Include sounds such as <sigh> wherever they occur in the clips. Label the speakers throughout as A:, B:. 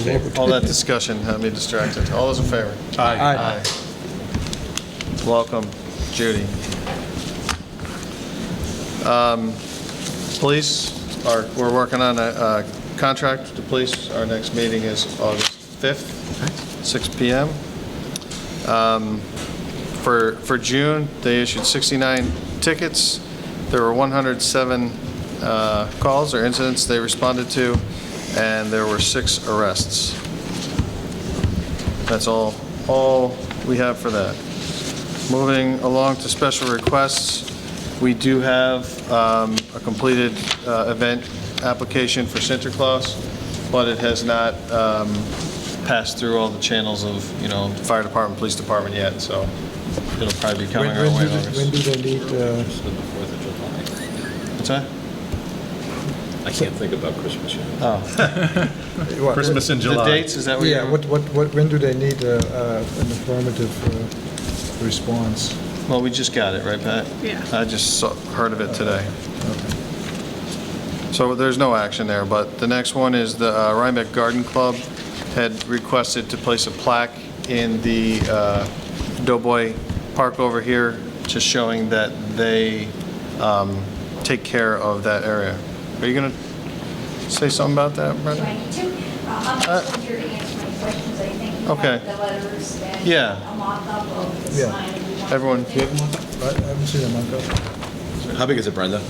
A: favor?
B: All that discussion had me distracted. All those in favor?
A: Aye.
B: Welcome, Judy. Um, Police, are we're working on a uh, contract with the police. Our next meeting is August 5th, 6 PM. Um, For, for June, they issued 69 tickets. There were 107 uh, calls or incidents they responded to, and there were six arrests. That's all, all we have for that. Moving along to special requests, we do have um, a completed uh, event application for Sinterklaas, but it has not um, passed through all the channels of, you know, fire department, police department yet, so it'll probably be coming
A: When
B: our
A: when
B: way. in
A: do, when
B: August.
A: do they need, uh,
B: What's that?
C: I can't think about Christmas yet.
A: what-
D: Christmas in
B: The
D: July.
B: dates, is that what you're?
A: Yeah, what, what, what, when do they need uh, uh, an affirmative uh, response?
B: Well, we just got it, right, Pat?
E: Yeah.
B: I just saw- heard of it today. So there's no action there, but the next one is the uh, Rhinebeck Garden Club had requested to place a plaque in the uh, Doughboy Park over here, just showing that they um, take care of that area. Are you going to say something about that,
F: Do I
B: Brenda?
F: need to? Uh, I'm just here to answer my questions, I think. you
B: Okay.
F: have The letters and.
B: Yeah.
F: A mock-up of the
A: Yeah.
F: sign. if you want.
B: Everyone, do you
A: I I haven't seen them, I've
C: How big is it, Brenda?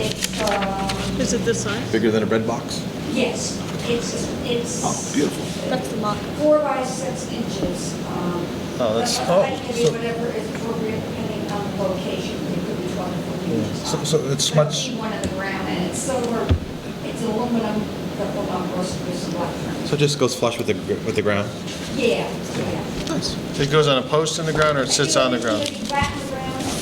F: It's, um,
E: Is it this size?
C: Bigger than a bread box?
F: yes, it's, it's
C: beautiful.
E: That's the mock.
F: four by six inches. um,
B: Oh, that's-
F: but I think it'd be whatever is appropriate depending on the location, it could be 12 or 14 inches.
A: So-
F: high.
A: so it's
F: But
A: much-
F: it'd be one on the ground, and it's silver, it's aluminum, the whole on roasted black.
C: So it just goes flush with the, gr- with the ground?
F: Yeah, yeah.
C: Nice.
B: It goes on a post in the ground or it sits on the ground? Yeah.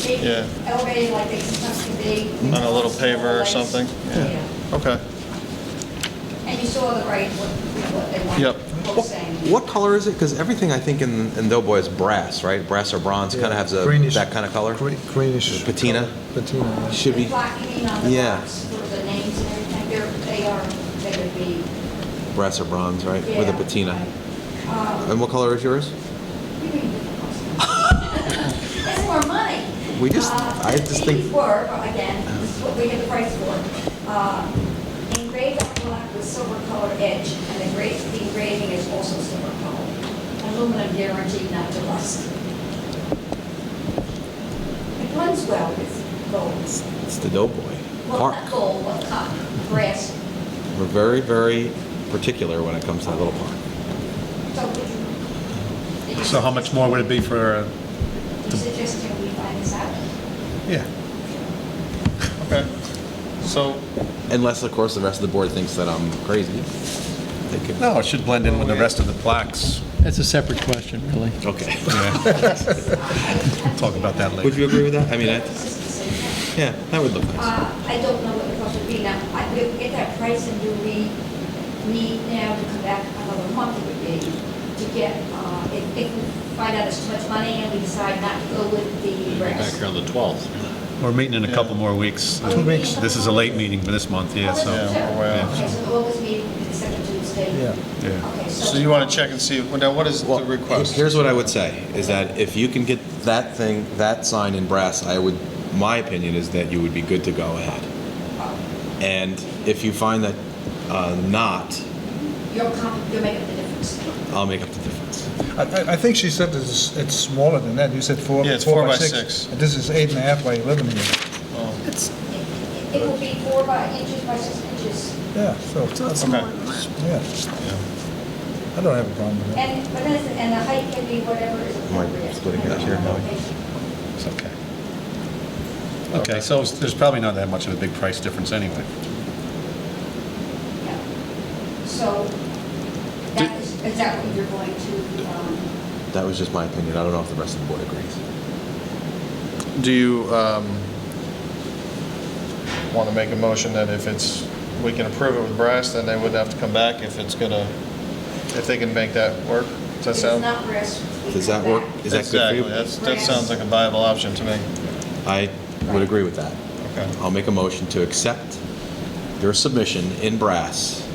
F: Yeah. Elevated like they sometimes can be.
B: On a little paver or something? Yeah.
F: Yeah.
B: Okay.
F: And you saw the right, what, what they want.
B: Yep.
F: both saying.
C: What color is it? Because everything I think in, in Doughboy is brass, right? Brass or bronze, kind of has a,
A: Greenish.
C: that kind of color?
A: got, Gre- greenish.
C: Patina?
A: color. Patina, yeah.
C: Should
F: The
C: be,
F: blackening on the
C: Yeah.
F: box for the names and everything, they're, they are, they would be.
C: brass or bronze, right? With a
F: yeah.
C: patina.
F: Um,
C: And what color is yours?
F: you mean different costumes. That's more money.
C: We just-
F: Uh,
C: I just think-
F: These were, again, this is what we get the price for, uh, engraved on black with silver colored edge, and the gra- the engraving is also silver colored. Aluminum guaranteed not to rust. It blends well with gold.
C: It's the Doughboy
F: Well, not
C: Park.
F: gold, but cotton, brass.
C: We're very, very particular when it comes to that little park.
F: So would you-
D: So how much more would it be for, uh,
F: You suggesting we find this out?
D: yeah,
B: Okay. So
C: Unless, of course, the rest of the board thinks that I'm crazy. They could-
D: no, it should blend in with the rest of the plaques.
G: That's a separate question, really.
C: <laughs> Okay.
D: <laughs> Talk about that later.
C: Would you agree with that? I mean, I-
F: This is the same thing.
C: yeah, that would look nice.
F: Uh, I don't know what the cost would be now. I could get that price and do we need now to come back another month it would be to get, uh, if, if we find out it's too much money and we decide not to go with the rest.
C: on the 12th.
D: We're meeting in a couple more weeks.
F: Two weeks.
D: This is a late meeting for this month, yeah, so.
B: Yeah, we're way off.
F: Okay, so the August meeting, the second Tuesday.
A: Yeah.
D: Yeah.
F: Okay, so.
B: So you want to check and see, well, now what is the
C: Well,
B: request?
C: Here's what I would say, is that if you can get that thing, that sign in brass, I would, my opinion is that you would be good to go ahead. And if you find that uh, not,
F: You'll come, you'll make up the difference.
C: I'll make up the difference.
A: I, I- I think she said it's, it's smaller than that, you said four,
B: Yeah, it's
A: four
B: four
A: by
B: by
A: six.
B: six.
A: And This is eight and a half by 11 here.
F: It- it- It will be four by inches by six inches.
A: Yeah, so,
E: So it's
B: Okay.
E: smaller than that.
A: yeah. I don't have a problem with that.
F: And, but then, it's- and the height can be whatever is
C: I
F: appropriate.
C: splitting hairs here, Howie?
D: It's okay. Okay, so it's- there's probably not that much of a big price difference anyway.
F: Yeah. So that is exactly what you're going to, um,
C: That was just my opinion, I don't know if the rest of the board agrees.
B: Do you want to make a motion that if it's, we can approve it with brass, then they wouldn't have to come back if it's going to, if they can make that work? Does that
F: it's
B: sound?
F: not risk. we
C: Does that
F: come
C: work?
F: back.
C: Is that good for you?
B: Exactly, that's, that sounds like a viable option to me.
C: I would agree with that.
B: Okay.
C: I'll make a motion to accept your submission in brass